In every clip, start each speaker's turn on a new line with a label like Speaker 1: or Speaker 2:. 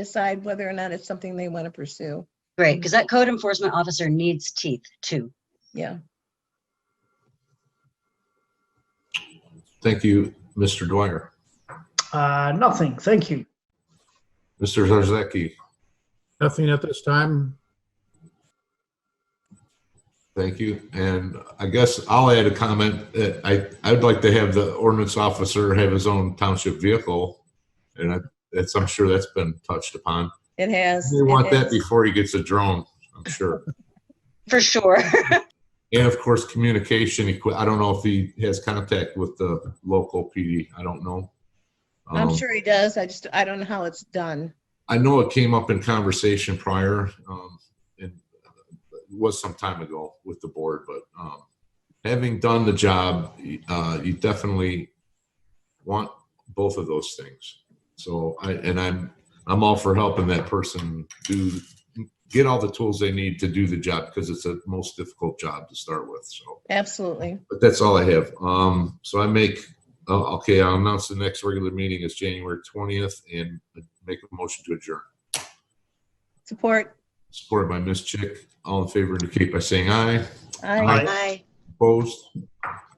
Speaker 1: decide whether or not it's something they want to pursue.
Speaker 2: Great, because that code enforcement officer needs teeth too.
Speaker 1: Yeah.
Speaker 3: Thank you, Mr. Dwyer.
Speaker 4: Uh, nothing, thank you.
Speaker 3: Mr. Zarzaki,
Speaker 5: Nothing at this time.
Speaker 3: thank you. And I guess I'll add a comment that I, I'd like to have the ordinance officer have his own township vehicle. And I, that's, I'm sure that's been touched upon.
Speaker 1: It has.
Speaker 3: They want
Speaker 1: it
Speaker 3: that
Speaker 1: has.
Speaker 3: before he gets a drone, I'm sure.
Speaker 2: For sure.
Speaker 3: And of course, communication equi, I don't know if he has contact with the local PD. I don't know.
Speaker 1: I'm
Speaker 3: Um,
Speaker 1: sure he does. I just, I don't know how it's done.
Speaker 3: I know it came up in conversation prior, um, and it was some time ago with the board, but, um, having done the job, uh, you definitely want both of those things. So I, and I'm, I'm all for helping that person do, get all the tools they need to do the job because it's the most difficult job to start with, so.
Speaker 1: Absolutely.
Speaker 3: But that's all I have. Um, so I make, uh, okay, I'll announce the next regular meeting is January twentieth and make a motion to adjourn.
Speaker 1: Support.
Speaker 3: Supported by Ms. Chick. All in favor indicate by saying aye.
Speaker 1: I
Speaker 2: Bye.
Speaker 3: Opposed?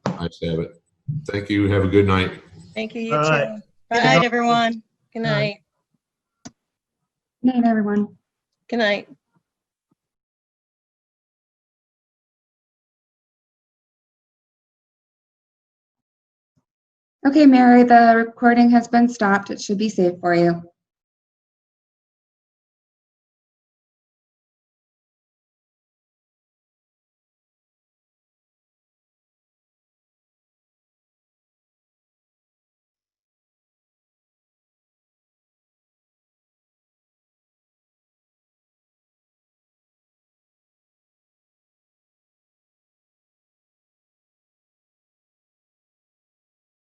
Speaker 3: Ayes have it. Thank you. Have a good night.
Speaker 1: Thank you. You
Speaker 4: All right.
Speaker 1: too.
Speaker 2: Good
Speaker 1: Bye.
Speaker 2: night, everyone.
Speaker 1: Good night.
Speaker 6: Night, everyone.
Speaker 1: Good night.
Speaker 6: Okay, Mary, the recording has been stopped. It should be safe for you.